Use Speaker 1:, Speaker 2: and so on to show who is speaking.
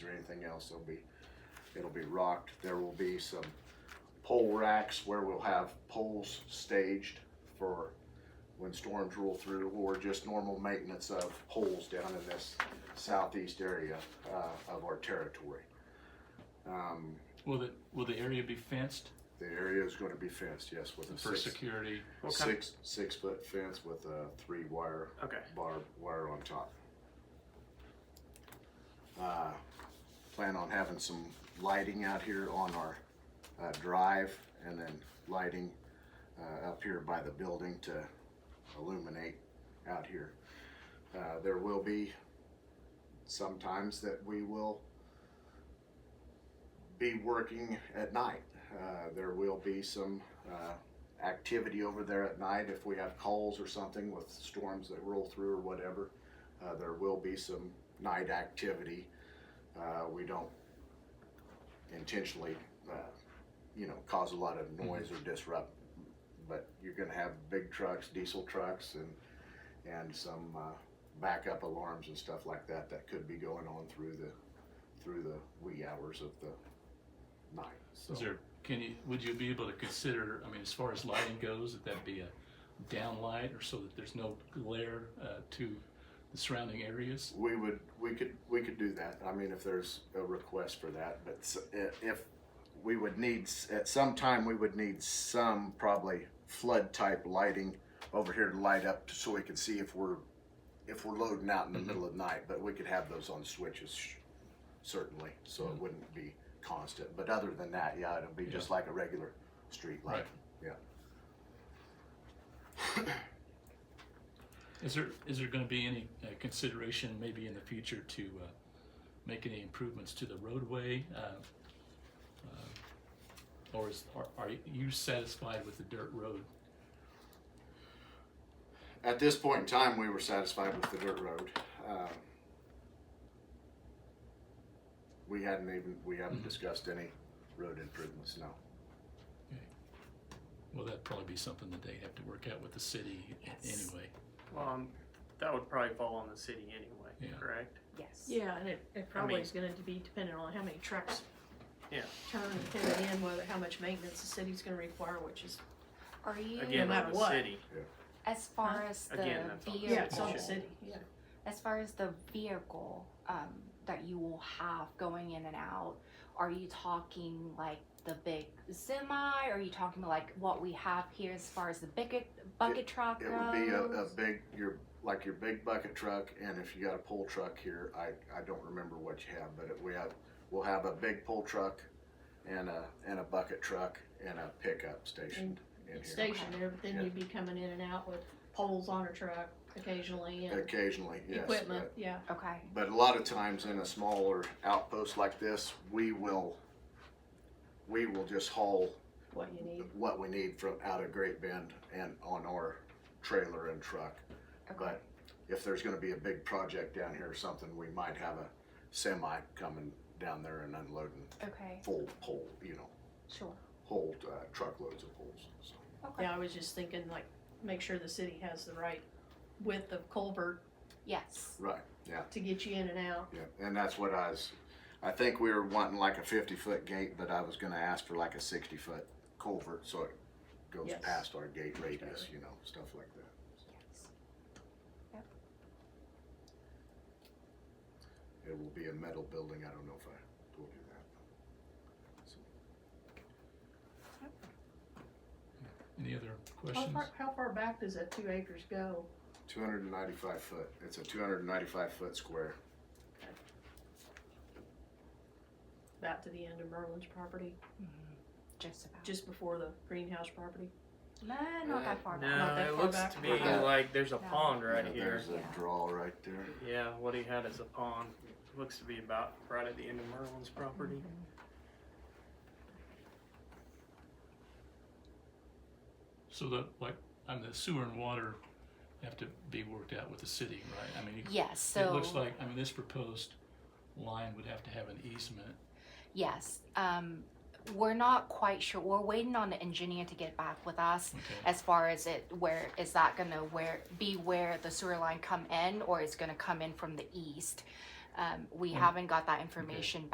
Speaker 1: anything else, there'll be, it'll be rocked. There will be some pole racks where we'll have poles staged for when storms roll through or just normal maintenance of poles down in this southeast area uh, of our territory. Um,
Speaker 2: Will the, will the area be fenced
Speaker 1: The area is going to be fenced, yes, with a
Speaker 2: for
Speaker 1: six,
Speaker 2: security?
Speaker 3: What kind
Speaker 1: six, six foot fence with a three wire
Speaker 3: okay.
Speaker 1: barbed wire on top. Uh, Plan on having some lighting out here on our uh, drive and then lighting uh, up here by the building to illuminate out here. Uh, There will be sometimes that we will be working at night. Uh, There will be some uh, activity over there at night if we have calls or something with storms that roll through or whatever. Uh, there will be some night activity. Uh, we don't intentionally, uh, you know, cause a lot of noise or disrupt, but you're going to have big trucks, diesel trucks, and and some uh, backup alarms and stuff like that that could be going on through the through the wee hours of the night. So
Speaker 2: Is there, can you, would you be able to consider, I mean, as far as lighting goes, that that be a downlight or so that there's no glare uh, to the surrounding areas?
Speaker 1: We would, we could, we could do that. I mean, if there's a request for that, but s- i- if we would need, s- at some time, we would need some probably flood type lighting over here to light up so we can see if we're, if we're loading out in the middle of the night, but we could have those on switches sh- certainly, so it wouldn't be constant. But other than that, yeah, it'll be just like a regular street light.
Speaker 2: Right.
Speaker 1: Yeah.
Speaker 2: Is there, is there going to be any uh, consideration maybe in the future to uh, make any improvements to the roadway? uh, uh, Or is, are- are you satisfied with the dirt road?
Speaker 1: At this point in time, we were satisfied with the dirt road. Um, We hadn't even, we haven't discussed any road improvements, no.
Speaker 2: Well, that'd probably be something that they have to work out with the city anyway.
Speaker 3: Well, um, that would probably fall on the city anyway,
Speaker 2: Yeah.
Speaker 3: correct?
Speaker 4: Yes.
Speaker 5: Yeah, and it, it probably
Speaker 3: mean-
Speaker 5: is gonna be dependent on how many trucks.
Speaker 3: Yeah.
Speaker 5: Turn and turn in, whether, how much maintenance the city's gonna require, which is,
Speaker 4: Are you
Speaker 3: Again,
Speaker 5: No
Speaker 3: on
Speaker 5: matter
Speaker 3: the
Speaker 5: what.
Speaker 3: city.
Speaker 4: as far as the
Speaker 3: Again, that's on the
Speaker 4: vehicle?
Speaker 5: yeah, it's on the
Speaker 2: Yeah.
Speaker 5: city, yeah.
Speaker 4: As far as the vehicle um, that you will have going in and out, are you talking like the big semi? Are you talking like what we have here as far as the bucket bucket truck
Speaker 1: It would be a, a
Speaker 4: goes?
Speaker 1: big, your, like your big bucket truck, and if you got a pole truck here, I, I don't remember what you have, but it- we have, we'll have a big pole truck and a, and a bucket truck and a pickup stationed in
Speaker 5: It's
Speaker 1: here.
Speaker 5: stationed there, but then
Speaker 1: Yeah.
Speaker 5: you'd be coming in and out with poles on a truck occasionally and
Speaker 1: Occasionally, yes.
Speaker 5: equipment, yeah.
Speaker 4: okay.
Speaker 1: But a lot of times in a smaller outpost like this, we will, we will just haul
Speaker 5: What you need,
Speaker 1: what we need from out of Great Bend and on our trailer and truck.
Speaker 4: Okay.
Speaker 1: But if there's gonna be a big project down here or something, we might have a semi coming down there and unloading
Speaker 4: Okay.
Speaker 1: full pole, you know,
Speaker 4: Sure.
Speaker 1: whole uh, truckloads of poles, so.
Speaker 4: Okay.
Speaker 5: yeah, I was just thinking like, make sure the city has the right width of culvert
Speaker 4: Yes.
Speaker 1: Right, yeah.
Speaker 5: to get you in and out.
Speaker 1: Yeah, and that's what I was, I think we were wanting like a fifty foot gate, but I was gonna ask for like a sixty foot culvert, so it goes
Speaker 5: Yes.
Speaker 1: past our gate radius, you know, stuff like that.
Speaker 4: Yes.
Speaker 1: It will be a metal building, I don't know if I told you that.
Speaker 2: Any other
Speaker 5: How
Speaker 2: questions?
Speaker 5: far, how far back does that two acres go?
Speaker 1: Two hundred and ninety-five foot, it's a two hundred and ninety-five foot square,
Speaker 5: About to the end of Merlin's property,
Speaker 4: Just about.
Speaker 5: Mm-hmm. just before the greenhouse property?
Speaker 4: no, not that far. back.
Speaker 5: Not
Speaker 3: Uh, No,
Speaker 5: that
Speaker 3: it
Speaker 5: far
Speaker 3: looks
Speaker 5: back.
Speaker 3: to me
Speaker 1: Yeah.
Speaker 3: like there's a
Speaker 4: No.
Speaker 3: pond right
Speaker 1: Yeah,
Speaker 3: here.
Speaker 1: there's a draw right there.
Speaker 3: Yeah, what he had is a pond. Looks to be about right at the end of Merlin's property.
Speaker 2: So the, like, I mean, the sewer and water have to be worked out with the city, right? I mean, you-
Speaker 4: Yes. So
Speaker 2: it looks like, I mean, this proposed line would have to have an easement.
Speaker 4: Yes. Um, we're not quite sure. We're waiting on the engineer to get back with us
Speaker 2: Okay,
Speaker 4: as far as it where is that going to where be where the sewer line come in or is going to come in from the east. Um, we
Speaker 2: Mm.
Speaker 4: haven't got that information